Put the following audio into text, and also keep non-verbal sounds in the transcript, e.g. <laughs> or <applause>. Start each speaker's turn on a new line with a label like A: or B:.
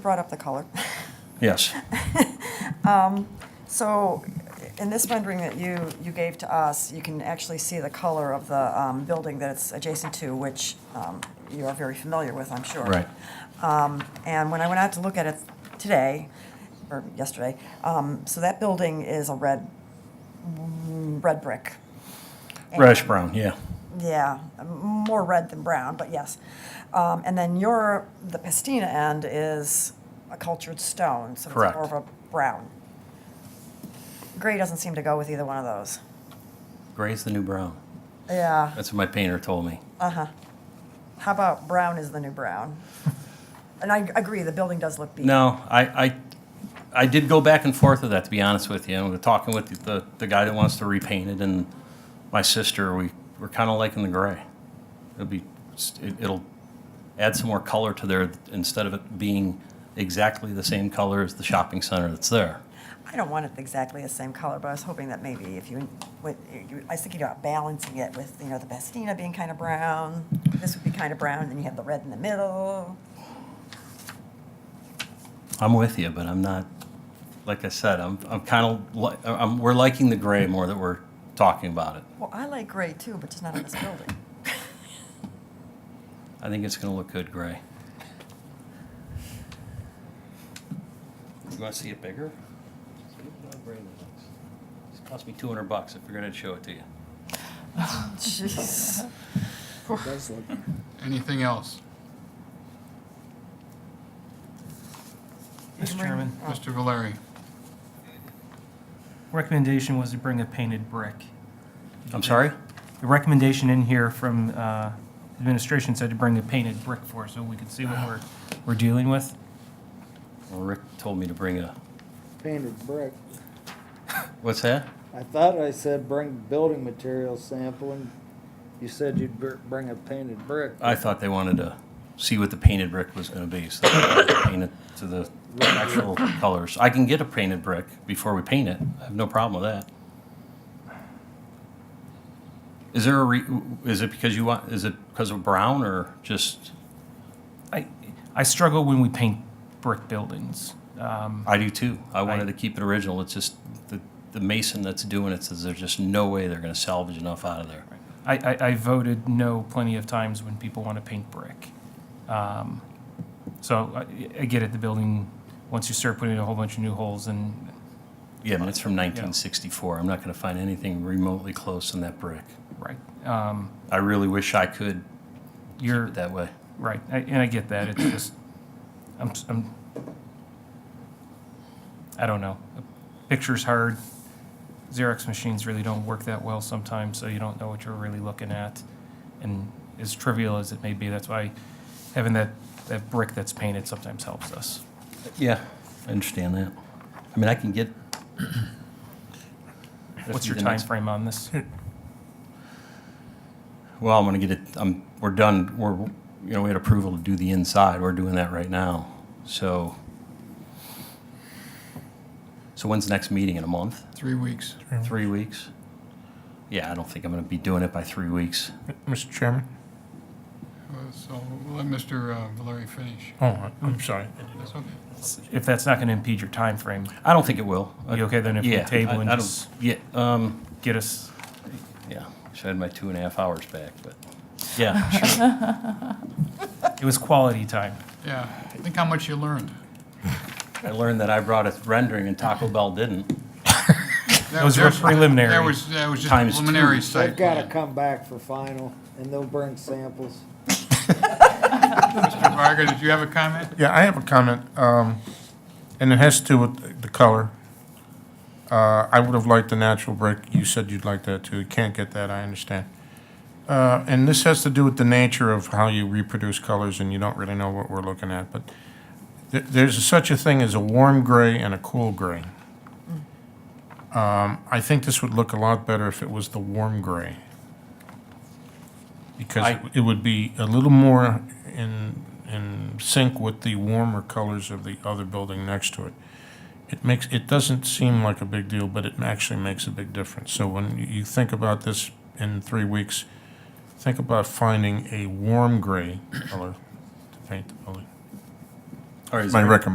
A: brought up the color. <laughs>
B: Yes.
A: So in this rendering that you, you gave to us, you can actually see the color of the um, building that it's adjacent to, which um, you are very familiar with, I'm sure.
B: Right.
A: Um, And when I went out to look at it today, or yesterday, um, so that building is a red, mm, red brick.
B: Reddish brown, yeah.
A: Yeah, more red than brown, but yes. Um, and then your the pastina end is a cultured stone, so
B: Correct.
A: it's more of a brown. Gray doesn't seem to go with either one of those.
B: Gray's the new brown.
A: Yeah. uh-huh.
B: That's what my painter told me.
A: How about brown is the new
B: <laughs>
A: brown? And I agree, the building does look beat.
B: No, I, I, I did go back and forth with that, to be honest with you. And we're talking with the, the guy that wants to repaint it and my sister, we, we're kind of liking the gray. It'll be, it- it'll add some more color to there instead of it being exactly the same color as the shopping center that's there.
A: I don't want it exactly the same color, but I was hoping that maybe if you, what, you- I was thinking about balancing it with, you know, the pastina being kind of brown. This would be kind of brown, then you have the red in the middle.
B: I'm with you, but I'm not, like I said, I'm, I'm kind of, li- I'm, we're liking the gray more that we're talking about it.
A: Well, I like gray too, but just not on this
C: <laughs>
A: building. <laughs>
B: I think it's gonna look good gray. You wanna see it bigger? See how gray that looks. This cost me two hundred bucks, I figured I'd show it to you.
A: Jeez.
D: Anything else?
C: Mr. Chairman,
A: Oh.
D: Mr. Valeri?
C: recommendation was to bring a painted brick.
B: I'm sorry?
C: The recommendation in here from uh, administration said to bring a painted brick for, so we could see what we're, we're dealing with.
B: Well, Rick told me to bring a,
E: painted brick.
B: what's that?
E: I thought I said bring building material sample and you said you'd br- bring a painted brick.
B: I thought they wanted to see what the painted brick was gonna be, so they paint it to the actual colors. I can get a painted brick before we paint it, I have no problem with that. Is there a re, is it because you want, is it because of brown or just?
C: I, I struggle when we paint brick buildings. Um,
B: I do too. I wanted to keep it original. It's just the, the mason that's doing it says there's just no way they're gonna salvage enough out of there.
C: I, I, I voted no plenty of times when people want to paint brick. Um, So I, I get it, the building, once you start putting in a whole bunch of new holes and
B: Yeah, I mean, it's from nineteen sixty-four. I'm not gonna find anything remotely close in that brick.
C: right, um,
B: I really wish I could keep
C: you're.
B: it that way.
C: Right, I- and I get that, it's just, I'm, s- I'm, I don't know. A Picture's hard, Xerox machines really don't work that well sometimes, so you don't know what you're really looking at. And as trivial as it may be, that's why having that, that brick that's painted sometimes helps us.
B: Yeah, I understand that. I mean, I can get.
C: <clears throat> What's your
B: The
C: time
B: next-
C: frame
B: <laughs>
C: on this?
B: Well, I'm gonna get it, I'm, we're done, we're, you know, we had approval to do the inside, we're doing that right now, so. So when's the next meeting, in a month?
D: Three weeks.
B: Three weeks? Yeah, I don't think I'm gonna be doing it by three weeks.
F: Mr. Chairman?
D: Uh, So we'll let Mr. uh, Valeri finish.
F: Oh, I'm sorry.
D: That's okay.
C: If that's not gonna impede your time frame,
B: I don't think it will.
C: You okay then if we
B: Uh, Yeah,
C: table
B: I-
C: and
B: I don't-
C: just-
B: Yeah, um,
C: get us,
B: yeah, should I had my two and a half hours back, but, yeah, sure.
C: it was quality time.
D: Yeah, think how much you learned.
B: <laughs> I learned that I brought a rendering and Taco Bell didn't.
D: That
C: Those were
D: that-
C: preliminary.
D: That was, that was just
B: Times two.
D: preliminary
E: They've
D: site
E: gotta
D: plan.
E: come back for final and they'll bring samples.
D: Mr. Varga, did you have a comment?
F: Yeah, I have a comment, um, and it has to do with the color. Uh, I would have liked the natural brick. You said you'd like that too. You can't get that, I understand. Uh, and this has to do with the nature of how you reproduce colors and you don't really know what we're looking at, but th- there's such a thing as a warm gray and a cool gray. Um, I think this would look a lot better if it was the warm gray. Because
B: I-
F: it w- it would be a little more in, in sync with the warmer colors of the other building next to it. It makes, it doesn't seem like a big deal, but it actually makes a big difference. So when you- you think about this in three weeks, think about finding a warm gray color to paint the building.
B: Or is
F: My
B: there-
F: recommendation.